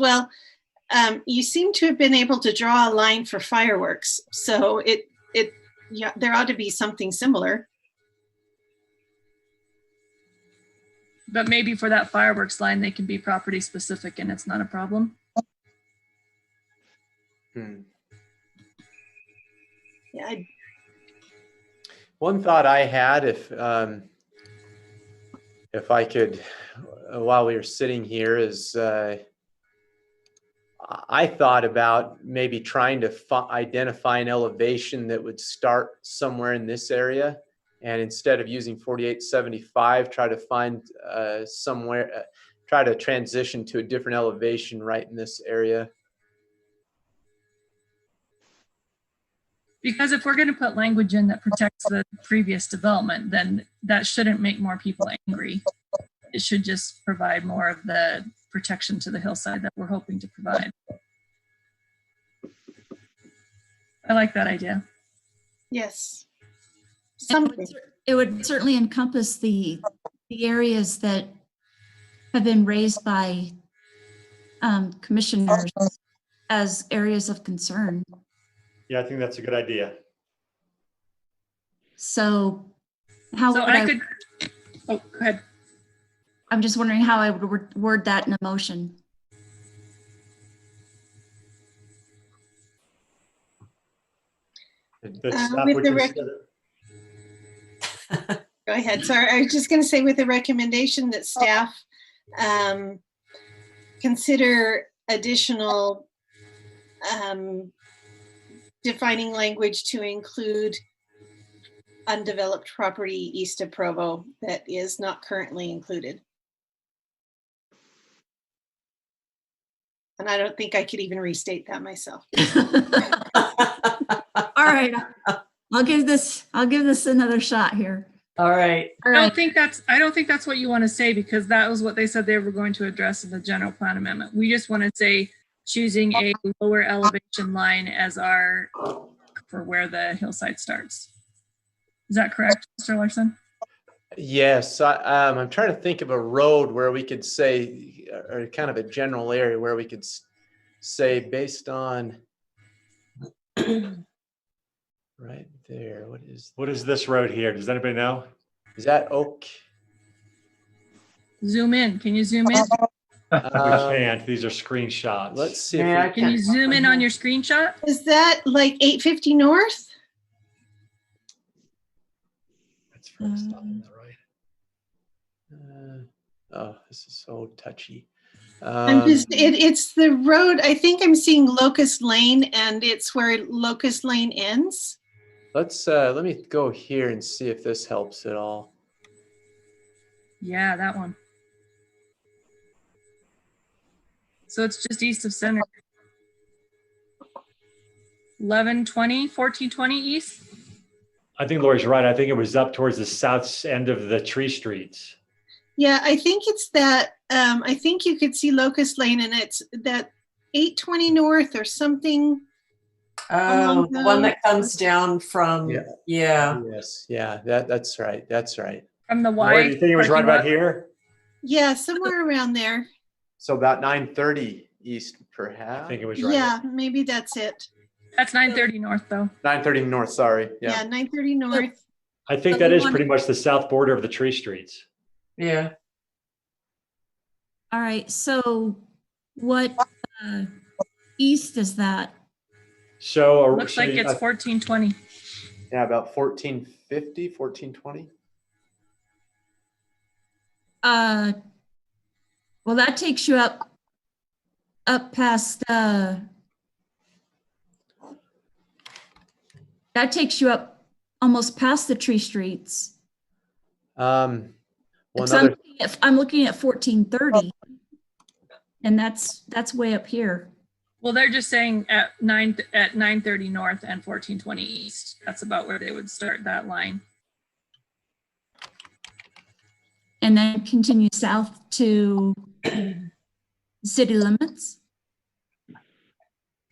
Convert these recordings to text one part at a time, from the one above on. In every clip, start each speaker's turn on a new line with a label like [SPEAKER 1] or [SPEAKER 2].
[SPEAKER 1] Well, um, you seem to have been able to draw a line for fireworks, so it it yeah, there ought to be something similar.
[SPEAKER 2] But maybe for that fireworks line, they can be property specific and it's not a problem.
[SPEAKER 3] Hmm.
[SPEAKER 1] Yeah, I-
[SPEAKER 3] One thought I had, if um, if I could, uh, while we were sitting here, is uh, I I thought about maybe trying to fi- identify an elevation that would start somewhere in this area, and instead of using 4875, try to find uh, somewhere, uh, try to transition to a different elevation right in this area.
[SPEAKER 2] Because if we're going to put language in that protects the previous development, then that shouldn't make more people angry. It should just provide more of the protection to the hillside that we're hoping to provide. I like that idea.
[SPEAKER 1] yes.
[SPEAKER 4] It would
[SPEAKER 1] Something.
[SPEAKER 4] cer- It would certainly encompass the, the areas that have been raised by um, commissioners as areas of concern.
[SPEAKER 5] Yeah, I think that's a good idea.
[SPEAKER 4] So how
[SPEAKER 2] So
[SPEAKER 4] would
[SPEAKER 2] I
[SPEAKER 4] I,
[SPEAKER 2] could, oh, go ahead.
[SPEAKER 4] I'm just wondering how I would word- word that in a motion.
[SPEAKER 5] That
[SPEAKER 1] Uh,
[SPEAKER 5] staff
[SPEAKER 1] with
[SPEAKER 5] would
[SPEAKER 1] the rec-
[SPEAKER 5] consider-
[SPEAKER 1] Go ahead. Sorry, I was just going to say with the recommendation that staff um, consider additional um, defining language to include undeveloped property east of Provo that is not currently included. And I don't think I could even restate that myself.
[SPEAKER 4] All right, I'll give this, I'll give this another shot here.
[SPEAKER 6] All right.
[SPEAKER 4] All
[SPEAKER 2] I don't
[SPEAKER 4] right,
[SPEAKER 2] think that's, I don't think that's what you want to say because that was what they said they were going to address in the general plan amendment. We just want to say choosing a lower elevation line as our, for where the hillside starts. Is that correct, Mr. Larson?
[SPEAKER 3] Yes, I, um, I'm trying to think of a road where we could say, or kind of a general area where we could s- say based on right there, what is,
[SPEAKER 5] What is this road here? Does anybody know?
[SPEAKER 3] is that oak?
[SPEAKER 2] Zoom in. Can you zoom in?
[SPEAKER 5] We
[SPEAKER 3] Um,
[SPEAKER 5] can't. These are screenshots.
[SPEAKER 3] Let's see.
[SPEAKER 6] Yeah, I
[SPEAKER 3] if we-
[SPEAKER 2] Can you zoom in on your screenshot?
[SPEAKER 1] Is that like 850 North?
[SPEAKER 5] That's from
[SPEAKER 4] um,
[SPEAKER 5] stopping that, right?
[SPEAKER 3] uh, Oh, this is so touchy.
[SPEAKER 1] I'm
[SPEAKER 3] Um,
[SPEAKER 1] just, it, it's the road, I think I'm seeing Locust Lane and it's where Locust Lane ends.
[SPEAKER 3] Let's, uh, let me go here and see if this helps at all.
[SPEAKER 2] Yeah, that one. So it's just east of center. 1120, 1420 east?
[SPEAKER 5] I think Lori's right. I think it was up towards the south s- end of the tree streets.
[SPEAKER 1] Yeah, I think it's that, um, I think you could see Locust Lane and it's that 820 North or something.
[SPEAKER 6] Oh, the one that comes down from,
[SPEAKER 3] Yeah.
[SPEAKER 6] yeah.
[SPEAKER 3] Yes, yeah, that, that's right, that's right.
[SPEAKER 2] From the Y.
[SPEAKER 5] Lori, do you think it was right about here?
[SPEAKER 1] Yeah, somewhere around there.
[SPEAKER 3] So about nine thirty east perhaps?
[SPEAKER 5] I think it was right.
[SPEAKER 1] Yeah, maybe that's it.
[SPEAKER 2] That's 930 north though.
[SPEAKER 3] Nine thirty north, sorry,
[SPEAKER 1] Yeah,
[SPEAKER 3] yeah.
[SPEAKER 1] 930 North.
[SPEAKER 5] I think that is pretty much the south border of the tree streets.
[SPEAKER 6] Yeah.
[SPEAKER 4] all right, so what uh, east is that?
[SPEAKER 5] So. or-
[SPEAKER 2] Looks
[SPEAKER 5] so
[SPEAKER 2] like
[SPEAKER 5] you-
[SPEAKER 2] it's 1420.
[SPEAKER 3] Yeah, about 1450, 1420.
[SPEAKER 4] Uh, well, that takes you up, up past, uh, that takes you up almost past the tree streets.
[SPEAKER 3] Um, well,
[SPEAKER 4] So I'm
[SPEAKER 3] another,
[SPEAKER 4] looking at- I'm looking at fourteen thirty. And that's, that's way up here.
[SPEAKER 2] Well, they're just saying at nine, at 930 north and 1420 east. That's about where they would start that line.
[SPEAKER 4] And then continue south to city limits.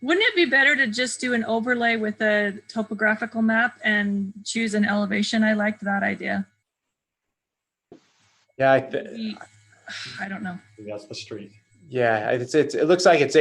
[SPEAKER 2] Wouldn't it be better to just do an overlay with a topographical map and choose an elevation? I liked that idea.
[SPEAKER 3] yeah, I th-
[SPEAKER 2] We- I don't know.
[SPEAKER 5] That's the street.
[SPEAKER 3] Yeah, it's, it's, it looks like it's